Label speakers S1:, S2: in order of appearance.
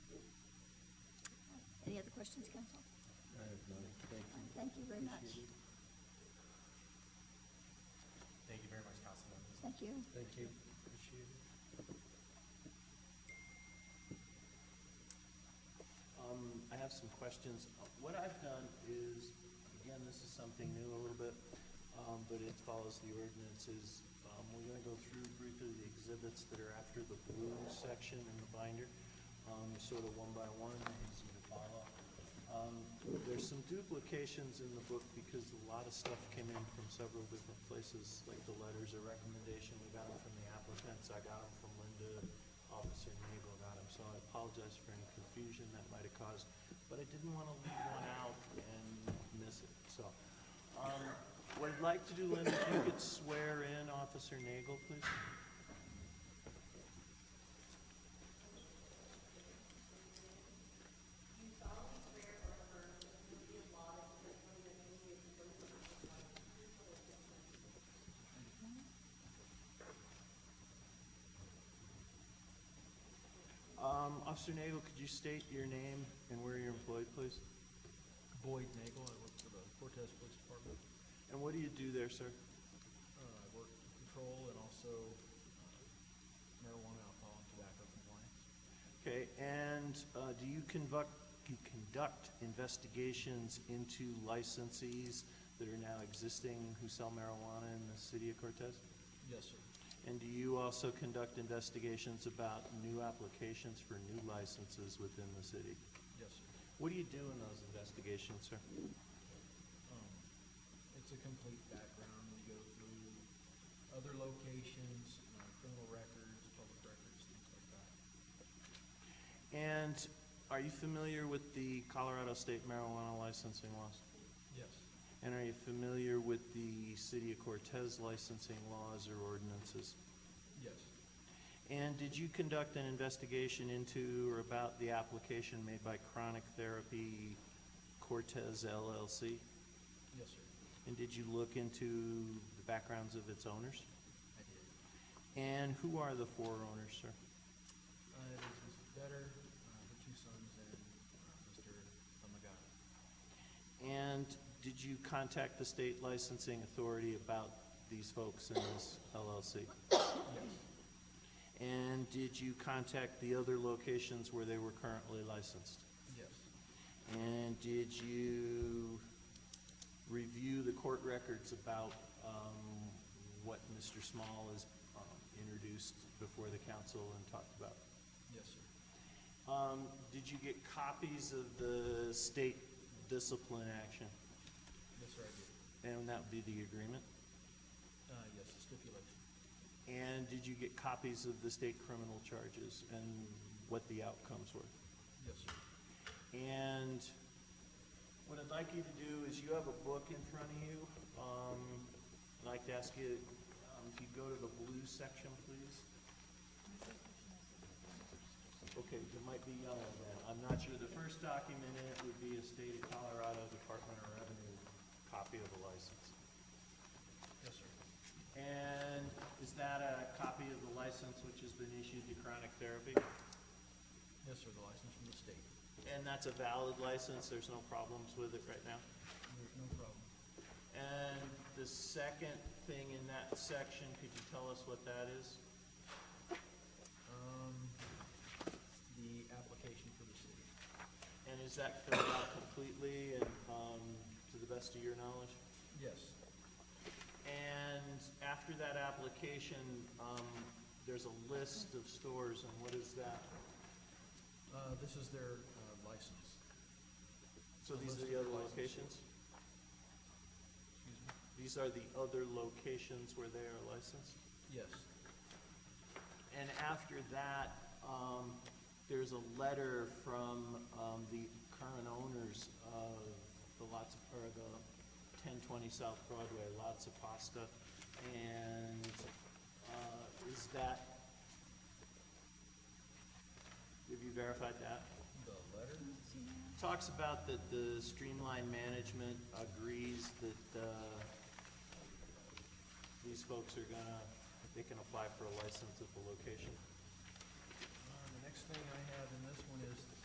S1: questions, council?
S2: I have none, thank you.
S1: Thank you very much.
S2: Appreciate it.
S3: Thank you very much, council members.
S1: Thank you.
S2: Thank you, appreciate it.
S4: Um, I have some questions. Uh, What I've done is, again, this is something new a little bit, um, but it follows the ordinances. Um, we're gonna go through briefly the exhibits that are after the blue section in the binder, um, sort of one by one, easy to follow. Um, there's some duplications in the book because a lot of stuff came in from several different places, like the letters of recommendation, we got them from the applicants, I got them from Linda, Officer Nagel got them, so I apologize for any confusion that might have caused, but I didn't want to leave one out and miss it, so. Um, what I'd like to do, Linda, if you could swear in Officer Nagel, please. Um, Officer Nagel, could you state your name and where you're employed, please?
S5: Boyd Nagel, I work for the Cortez Police Department.
S4: And what do you do there, sir?
S5: Uh, I work control and also uh, marijuana, alcohol, and tobacco compliance.
S4: Okay, and uh, do you conduct, you conduct investigations into licensees that are now existing who sell marijuana in the city of Cortez?
S5: Yes, sir.
S4: And do you also conduct investigations about new applications for new licenses within the city?
S5: Yes, sir.
S4: What do you do in those investigations, sir?
S5: Um, It's a complete background. We go through other locations, you know, criminal records, public records, things like that.
S4: And are you familiar with the Colorado state marijuana licensing laws?
S5: Yes.
S4: And are you familiar with the city of Cortez licensing laws or ordinances?
S5: Yes.
S4: And did you conduct an investigation into or about the application made by Chronic Therapy Cortez LLC?
S5: Yes, sir.
S4: And did you look into the backgrounds of its owners?
S5: I did.
S4: And who are the four owners, sir?
S5: Uh, It is Mr. Better, uh, the two sons, and uh, Mr. Amagata.
S4: And did you contact the state licensing authority about these folks in this LLC?
S5: Yes.
S4: And did you contact the other locations where they were currently licensed?
S5: Yes.
S4: And did you review the court records about um, what Mr. Small has um, introduced before the council and talked about?
S5: Yes, sir.
S4: Um, Did you get copies of the state discipline action?
S5: Yes, sir, I did.
S4: And that would be the agreement?
S5: Uh, yes, the stipulation.
S4: And did you get copies of the state criminal charges and what the outcomes were?
S5: Yes, sir.
S4: And what I'd like you to do is you have a book in front of you. Um, I'd like to ask you, um, if you go to the blue section, please. Okay, it might be yellow then. I'm not sure. The first document in it would be a state of Colorado Department of Revenue copy of the license.
S5: Yes, sir.
S4: And is that a copy of the license which has been issued to Chronic Therapy?
S5: Yes, sir, the license from the state.
S4: And that's a valid license, there's no problems with it right now?
S5: There's no problem.
S4: And the second thing in that section, could you tell us what that is?
S5: Um, the application for the city.
S4: And is that filled out completely and, um, to the best of your knowledge?
S5: Yes.
S4: And after that application, um, there's a list of stores, and what is that?
S5: Uh, this is their, uh, license.
S4: So these are the other locations?
S5: Excuse me?
S4: These are the other locations where they are licensed?
S5: Yes.
S4: And after that, um, there's a letter from, um, the current owners of the lots, or the ten twenty South Broadway, Lots of Pasta. And, uh, is that, have you verified that?
S5: The letter?
S4: Talks about that the streamline management agrees that, uh, these folks are gonna, they can apply for a license at the location.
S5: Uh, the next thing I have in this one is